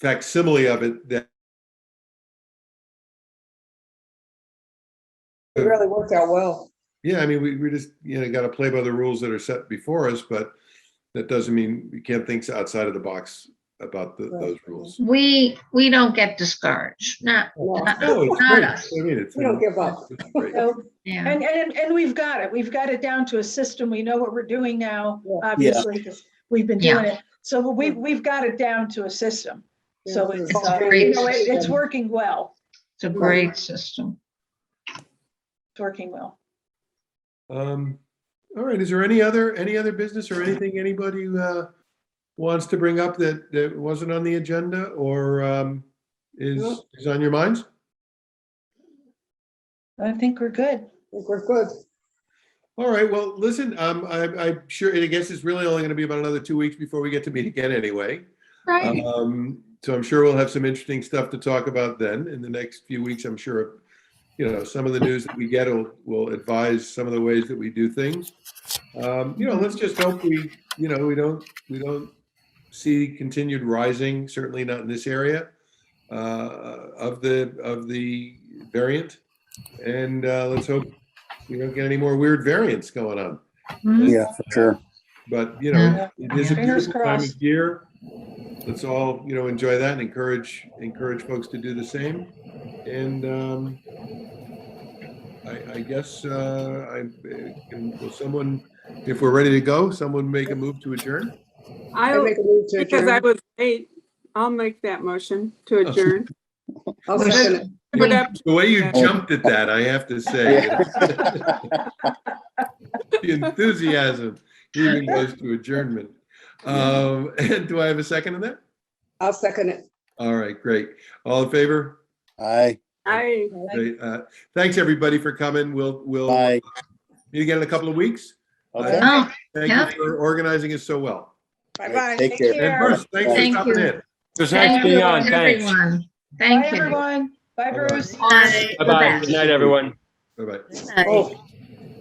facsimile of it that It really worked out well. Yeah, I mean, we, we just, you know, got to play by the rules that are set before us, but that doesn't mean we can't think outside of the box about the, Right. those rules. We, we don't get discouraged, not, No. No, it's Not great. us. I mean, it's. We don't give up. it's great. So, yeah. and, and, and we've got it. We've got it down to a system. We know what we're doing now, Yeah. obviously, because we've been doing it. So we, we've got it down to a system. So it's, It's uh, great you know, it- it's system. working well. It's a great system. It's working well. Um, all right, is there any other, any other business or anything anybody, uh, wants to bring up that, that wasn't on the agenda or, um, is, Nope. is on your minds? I think we're good. I think We're good. All right, well, listen, um, I, I'm sure, and I guess it's really only going to be about another two weeks before we get to meet again anyway. Right. Um, so I'm sure we'll have some interesting stuff to talk about then in the next few weeks. I'm sure, you know, some of the news that we get will, will advise some of the ways that we do things. Um, you know, let's just hope we, you know, we don't, we don't see continued rising, certainly not in this area, uh, of the, of the variant. And, uh, let's hope we don't get any more weird variants going on. Mhm. Yeah, for sure. But, you know, Yeah. it is a Fingers beautiful time crossed. of year. Let's all, you know, enjoy that and encourage, encourage folks to do the same. And um I, I guess, uh I, can, will someone, if we're ready to go, someone make a move to adjourn? I I, make a move to Oh, because I adjourn. was late, I'll make that motion to adjourn. I'll second it. Put up- The way you jumped at that, I have to say. The enthusiasm even goes to adjournment. Um And do I have a second on that? I'll second it. All right, great. All in favor? Aye, I, Great, uh, Thanks, everybody, for coming. We'll, we'll aye. meet again in a couple of weeks. Okay. Oh, Thank Yeah. you for organizing it so well. Bye-bye. Take care. And Bruce, thanks for Thank stopping you. in. Just nice thank being you, on. Thanks. everyone. Bye, Thank you. everyone. Bye, All right. Bruce. Bye. Bye bye. Good night, everyone. Bye-bye. Bye. Oh.